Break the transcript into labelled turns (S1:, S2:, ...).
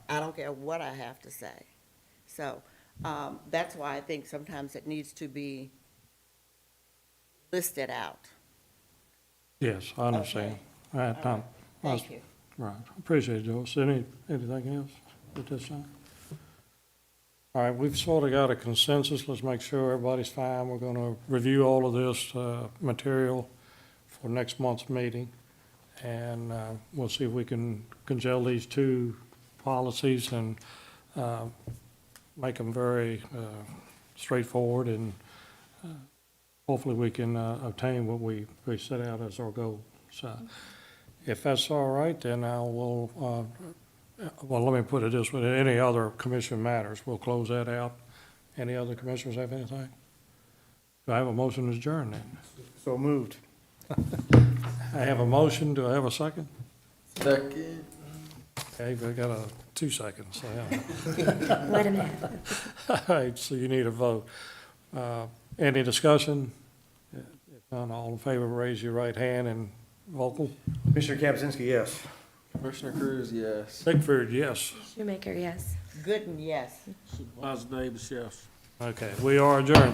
S1: care what I have to say. So, um, that's why I think sometimes it needs to be listed out.
S2: Yes, I understand. All right, Tom.
S1: Thank you.
S2: Right, appreciate it, Joyce. Any, anything else at this time? All right, we've sort of got a consensus, let's make sure everybody's fine. We're gonna review all of this, uh, material for next month's meeting. And, uh, we'll see if we can congeal these two policies and, uh, make them very, uh, straightforward and, uh, hopefully we can, uh, obtain what we, we set out as our goal, so. If that's all right, then I will, uh, well, let me put it this way, any other commission matters, we'll close that out. Any other commissioners have anything? Do I have a motion to adjourn then?
S3: So moved.
S2: I have a motion, do I have a second?
S3: Second.
S2: Okay, we got a two seconds, so, yeah.
S4: Let him have it.
S2: All right, so you need a vote. Uh, Any discussion? If none, all in favor, raise your right hand and vocal.
S3: Commissioner Kapczynski, yes.
S5: Commissioner Cruz, yes.
S2: Bickford, yes.
S4: Shoemaker, yes.
S1: Gooden, yes.
S2: Davis, yes. Okay, we are adjourned.